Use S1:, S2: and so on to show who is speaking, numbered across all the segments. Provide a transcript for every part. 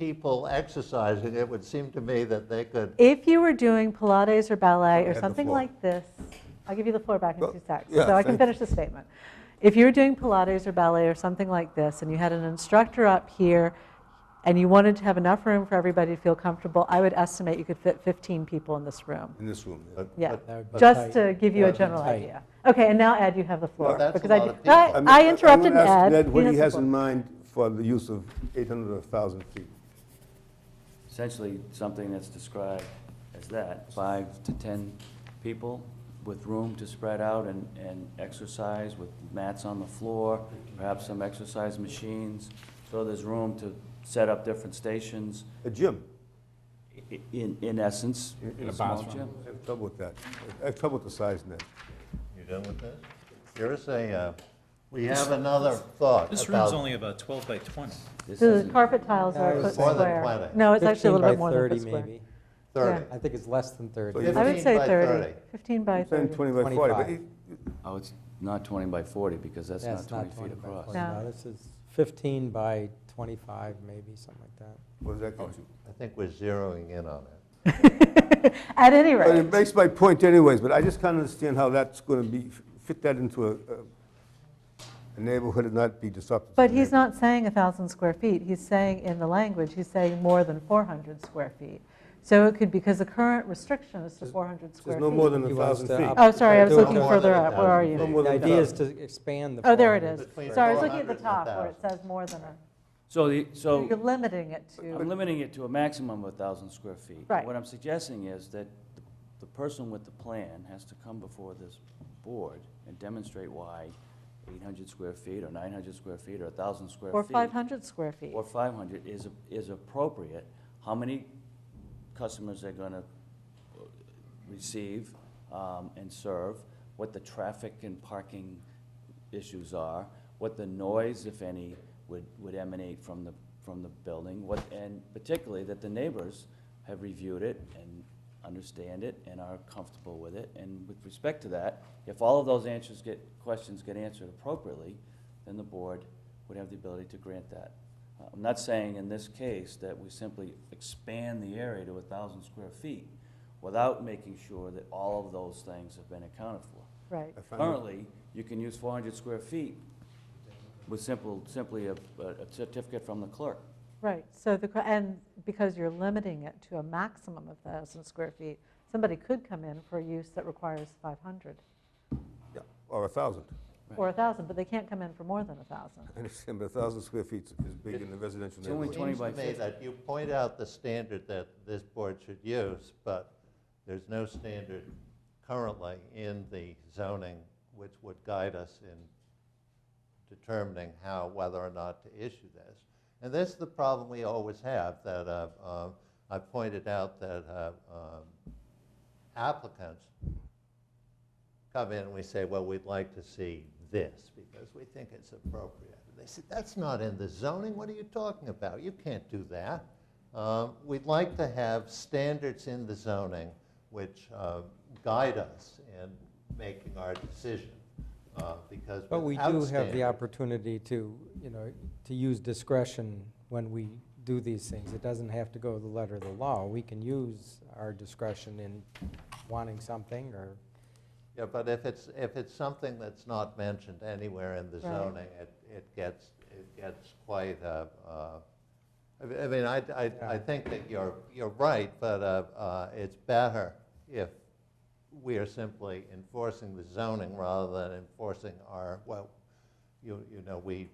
S1: people exercising, it would seem to me that they could,
S2: If you were doing Pilates or ballet or
S3: the
S2: something
S3: floor.
S2: like this, I'll give you the floor back in
S3: Well,
S2: two seconds,
S3: yeah,
S2: so I can
S3: thank-
S2: finish the statement. If you were doing Pilates or ballet or something like this, and you had an instructor up here, and you wanted to have enough room for everybody to feel comfortable, I would estimate you could fit 15 people in this room.
S3: in this room.
S1: but-
S2: Yeah,
S1: but-
S4: That would be
S2: just
S4: tight.
S2: to give you a
S1: That'd be
S2: general
S4: tight.
S2: idea. Okay, and now Ed, you have the floor.
S1: that's a
S2: because I
S1: lot
S2: did-
S1: of people.
S2: I-
S1: I
S3: mean,
S2: I
S3: wanna
S2: interrupted
S3: ask
S2: Ed.
S3: Ned what he
S2: the
S3: has
S2: floor.
S3: in mind for the use of 800 or 1,000 feet.
S5: essentially something that's described as that, five to 10 people with room to spread out and, and exercise with mats on the floor, perhaps some exercise machines. So there's room to set up different stations,
S3: A gym.
S5: i- in, in essence.
S6: In a
S5: small
S6: bathroom.
S5: gym.
S3: I have trouble with that. I have trouble with the size, Ned.
S1: You done with this? Here's a, uh, we have another thought about.
S7: This room's only about 12 by 20.
S5: This
S2: The
S5: isn't-
S2: carpet tiles are a
S4: More
S2: foot
S1: than
S2: square.
S1: 20.
S2: No, it's actually a
S4: 15
S2: little
S4: by
S2: bit more than a
S4: 30
S2: foot square.
S4: maybe.
S1: Thirty.
S4: I think it's less than 30.
S3: you-
S2: I would say
S1: 15 by
S2: 30,
S1: 30.
S2: 15 by
S3: Saying
S2: 30.
S3: 20 by 40, but
S4: 25.
S3: it-
S5: Oh, it's not 20 by 40, because that's not
S4: That's
S5: 20
S4: not
S5: feet
S4: 20 by
S5: across.
S4: 40.
S2: No.
S4: No, this is 15 by 25, maybe, something like that.
S3: what does that get you?
S1: I think we're zeroing in on it.
S2: At any
S3: But
S2: rate,
S3: it makes my point anyways, but I just can't understand how that's going to be, fit that into a- a- a neighborhood and not be disruptive. to
S2: but
S3: the
S2: he's
S3: neighborhood.
S2: not saying 1,000 square feet, he's saying in the language, he's saying more than 400 square feet. So it could, because the current restriction is to 400 square
S3: There's
S2: feet.
S3: no more than a
S4: He wants
S3: 1,000
S4: to
S3: feet.
S4: up-
S2: Oh, sorry, I was
S4: do it
S2: looking
S4: more
S2: further
S1: than a
S2: up, where are
S1: thousand
S3: No
S2: you?
S1: feet.
S3: more
S4: The
S3: than
S4: idea is
S3: 1,000.
S4: to expand the.
S2: Oh, there it
S4: 400.
S2: is.
S1: Between
S2: Sorry, I was looking at the
S1: 400 and
S2: top where it
S1: 1,000.
S2: says more than a,
S5: So the, so.
S2: you're limiting it to,
S5: I'm limiting it to a maximum of 1,000 square feet.
S2: Right.
S5: What I'm suggesting is that the- the person with the plan has to come before this board and demonstrate why 800 square feet, or 900 square feet, or 1,000 square feet.
S2: or 500 square feet.
S5: Or 500 is, is appropriate. How many customers they're going to receive um, and serve, what the traffic and parking issues are, what the noise, if any, would, would emanate from the, from the building, what, and particularly that the neighbors have reviewed it and understand it and are comfortable with it. And with respect to that, if all of those answers get, questions get answered appropriately, then the board would have the ability to grant that. Uh, I'm not saying in this case that we simply expand the area to a thousand square feet without making sure that all of those things have been accounted for.
S2: Right,
S3: I find it-
S5: Currently, you can use four hundred square feet with simple, simply a, a certificate from the clerk.
S2: right. So the, que- and because you're limiting it to a maximum of 1,000 square feet, somebody could come in for a use that requires 500
S3: Yeah, Or 1,000.
S2: or 1,000, but they can't come in for more than 1,000.
S3: I understand, but 1,000 square feet is- is big in a residential
S5: It's only
S3: neighborhood.
S5: 20 by
S1: Seems to me
S5: 50.
S1: that you point out the standard that this board should use, but there's no standard currently in the zoning which would guide us in determining how, whether or not to issue this. And this is the problem we always have, that uh, uh, I pointed out that uh, um, applicants come in and we say, well, we'd like to see this because we think it's appropriate. They said, that's not in the zoning, what are you talking about? You can't do that. Um, We'd like to have standards in the zoning which uh, guide us in making our decision uh, because
S4: But we
S1: without
S4: do have the
S1: standards-
S4: opportunity to, you know, to use discretion when we do these things. It doesn't have to go the letter of the law. We can use our discretion in wanting something or,
S1: Yeah, but if it's, if it's something that's not mentioned anywhere in the
S2: Right.
S1: zoning, it, it gets, it gets quite, uh, uh, I mean- I mean, I, I, I
S4: Yeah.
S1: think that you're, you're right, but, uh, uh, it's better if we are simply enforcing the zoning rather than enforcing our, well, you, you know, we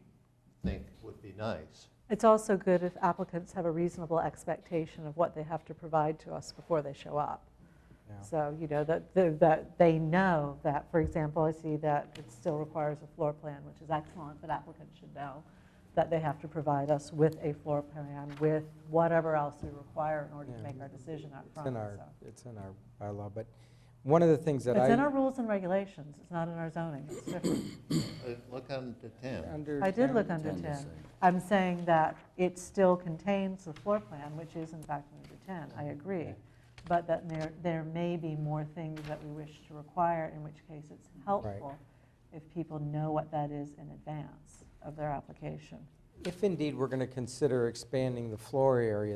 S1: think would be nice.
S2: It's also good if applicants have a reasonable expectation of what they have to provide to us before they show up.
S4: you know.
S2: So, you know, that, that- that they know that, for example, I see that it still requires a floor plan, which is excellent, but applicants should know that they have to provide us with a floor plan, with whatever else we require in order to
S4: Yeah.
S2: make our decision up
S4: It's in
S2: front.
S4: our,
S2: so.
S4: it's in our bylaw, but one of the things that I.
S2: It's in our rules and regulations, it's not in our zoning, it's different.
S1: Uh, Look under ten.
S4: Under
S2: I did
S4: 10
S2: look under
S5: Tend to
S2: 10.
S5: say.
S2: I'm saying that it still contains the floor plan, which is in fact under 10, I agree.
S4: Okay.
S2: But that there, there may be more things that we wish to require, in which case it's helpful if people know what that is in advance of their application.
S4: If indeed we're going to consider expanding the floor area,